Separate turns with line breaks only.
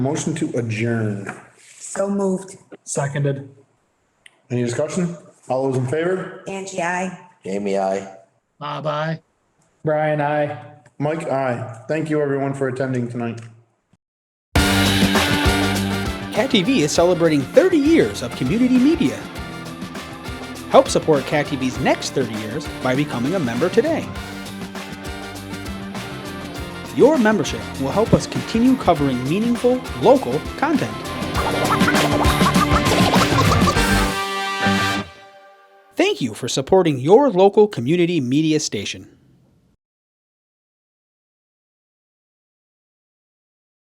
Motion to adjourn.
So moved.
Seconded.
Any discussion? All those in favor?
Angie, I.
Jamie, I.
Bye-bye. Brian, I.
Mike, aye. Thank you everyone for attending tonight.
Cat TV is celebrating 30 years of community media. Help support Cat TV's next 30 years by becoming a member today. Your membership will help us continue covering meaningful, local content. Thank you for supporting your local community media station.